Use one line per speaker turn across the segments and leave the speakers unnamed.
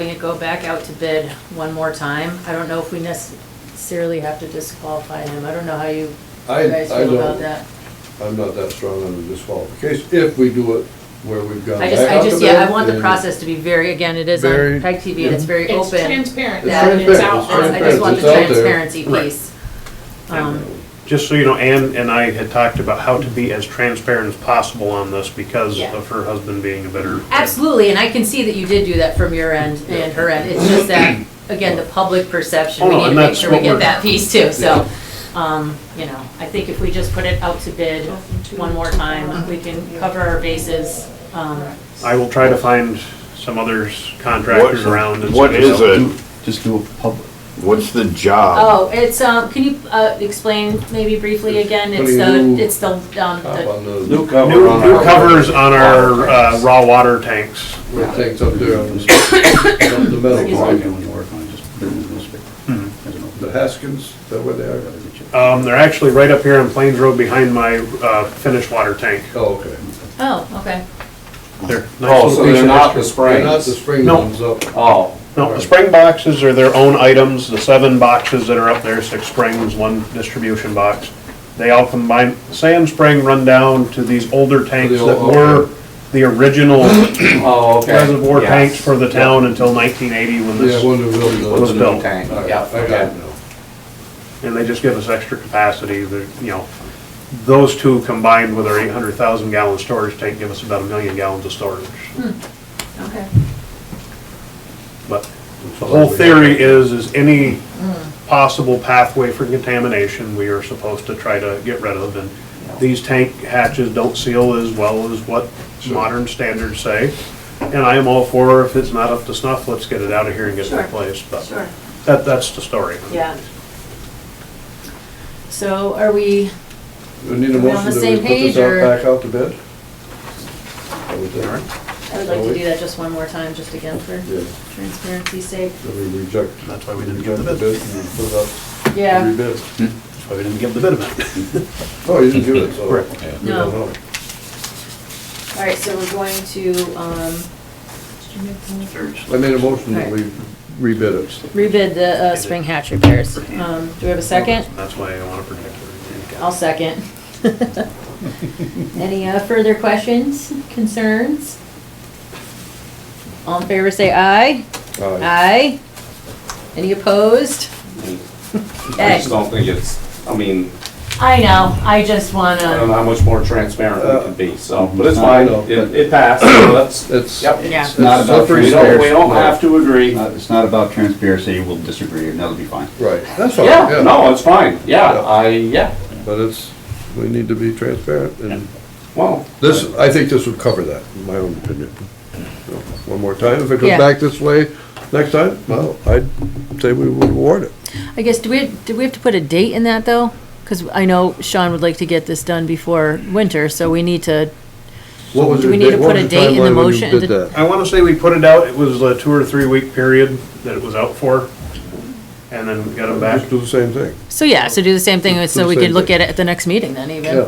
having it go back out to bid one more time. I don't know if we necessarily have to disqualify him. I don't know how you
I-
guys
I
feel about
don't-
that.
I'm not that strong on the disqualification, if we do it where we've gone.
I just,
back
I
out
just,
to
yeah,
bid
I want the
and-
process to be very, again, it is
Very-
on PEG TV and it's very
It's
open.
transparent,
Yeah.
and it's
Transparent,
out
it's
on.
I just want the
Transparent, it's out there.
transparency
Right.
piece. Um,
Just so you know, Ann and I had talked about how to be as transparent as possible on this because
Yeah.
of her husband being a bidder.
Absolutely, and I can see that you did do that from your end and her end. It's just that, again, the public perception, we
Oh, no,
need to
and
make
that's
sure we
what
get
we're-
that piece too, so. Um, you know, I think if we just put it out to bid one more time, we can cover our bases. Um,
I will try to find some others contractors
What-
around. and
What
see if
is it?
Do- Just do a public,
What's the job?
Oh, it's, um, can you, uh, explain maybe briefly again? It's
Putting
the,
new
it's the, um,
Top
the,
on the,
new
new
cover
New,
on
new
our.
covers on our uh, raw water tanks.
tanks up there on the, on the
Like,
metal
all I do
line,
when you work on it, just put it in the newspaper. I don't know.
the Haskins, is that where they are?
Um, they're actually right up here on Plains Road behind my uh, finished water tank.
Oh, okay.
oh, okay.
They're nice
Oh,
little
so they're
pieces.
not the
They're Not the
springs?
spring
No.
ones up.
Oh,
No, the spring boxes are their own items, the seven boxes that are up there, six springs, one distribution box. They all combine, Sam Spring run down to these older tanks
old-
that were the original
oh, okay.
reservoir
Yes.
tanks for the town until nineteen eighty when
Yeah,
this,
one of
What's
Was
those.
the-
a
built.
new tank,
All right,
yeah,
I got it
okay.
now.
and they just give us extra capacity, that, you know. Those two combined with our eight hundred thousand gallon storage tank give us about a million gallons of storage.
Okay.
But The whole theory is, is any possible pathway for contamination, we are supposed to try to get rid of. And these tank hatches don't seal as well as what modern standards say. And I am all for if it's not up to snuff, let's get it out of here and get it
Sure,
replaced. But
sure.
that, that's the story.
Yeah. So are we,
We need
Are
a
we on
motion
the
that we
same
put
page,
this
or-
out back out to bid? I would think.
I would like to do that just one more time, just again for
Yeah,
transparency's sake.
that we reject.
That's why we didn't give the
reject
bid.
and Put it up.
Yeah,
Rebid.
That's why we didn't give the bid amount.
Oh, you didn't do it, so.
Correct.
we don't
No.
know.
all right, so we're going to, um,
I made a motion that we rebid it.
rebid the, uh, spring hatch repairs. Um, do we have a second?
That's why I want to protect it.
I'll second. Any uh, further questions, concerns? All in favor, say aye.
All right.
Aye. Any opposed?
I
Okay.
just don't think it's, I mean,
I know, I just
I don't
wanna,
know how much more transparent we can be,
Uh,
so, but it's
I
fine,
know.
it, it passed, so that's,
It's.
yep.
Yeah.
it's
Not about
slippery
We don't, we
stairs.
don't have to agree.
Uh, It's not about transparency, we'll disagree, and that'll be fine.
Right, that's all,
Yeah,
yeah,
no, it's fine, yeah,
Yeah.
I, yeah,
but it's, we need to be transparent, and
well,
this, I think this would cover that, in my own opinion. So, One more time, if it
Yeah.
goes back this way next time, well, I'd say we would award it.
I guess, do we, do we have to put a date in that, though? Because I know Sean would like to get this done before winter, so we need to,
What was
Do
your
we need to
date- what
put a
was
date in the
timeline when you
motion?
Did that,
I want to say we put it out, it was a two or three week period that it was out for. And then we got it back.
just do the same thing,
so yeah, so do the same thing, so we could look at it at the next meeting then,
yeah.
even.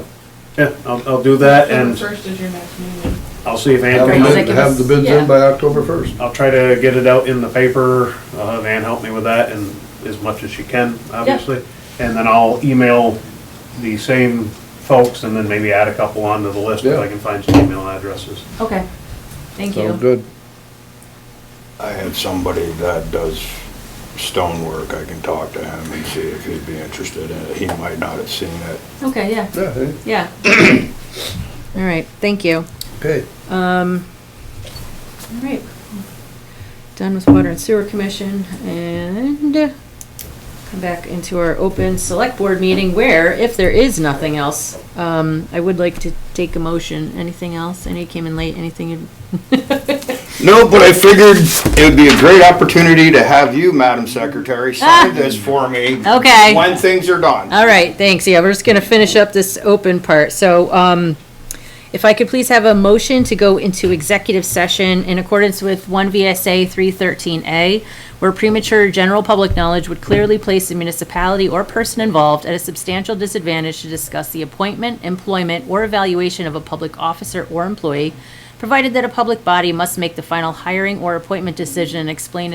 Yeah, I'll, I'll do that
October
and
first is your next meeting.
I'll see if
Have
Ann
the
Right,
can,
so
bid-
give
have
us-
the bids
yeah.
in by October first.
I'll try to get it out in the paper, I'll have Ann help me with that and as much as she can, obviously. And then I'll email the same folks and then maybe add a couple onto the list if
Yeah.
I can find some email addresses.
Okay, thank
Sounds
you.
good.
Oh.
I have somebody that does stonework. I can talk to him and see if he'd be interested in it. He might not have seen it.
Okay, yeah,
Yeah, hey,
yeah. All right, thank you.
okay.
Um, all right. Done with Water and Sewer Commission and come back into our open select board meeting where, if there is nothing else, um, I would like to take a motion. Anything else? Any came in late, anything? you-
No, but I figured it would be a great opportunity to have you, Madam Secretary, sign this for me.
Okay.
When things are done.
All right, thanks. Yeah, we're just gonna finish up this open part. So, um, if I could please have a motion to go into executive session in accordance with one VSA three thirteen A, where premature general public knowledge would clearly place the municipality or person involved at a substantial disadvantage to discuss the appointment, employment, or evaluation of a public officer or employee, provided that a public body must make the final hiring or appointment decision and explain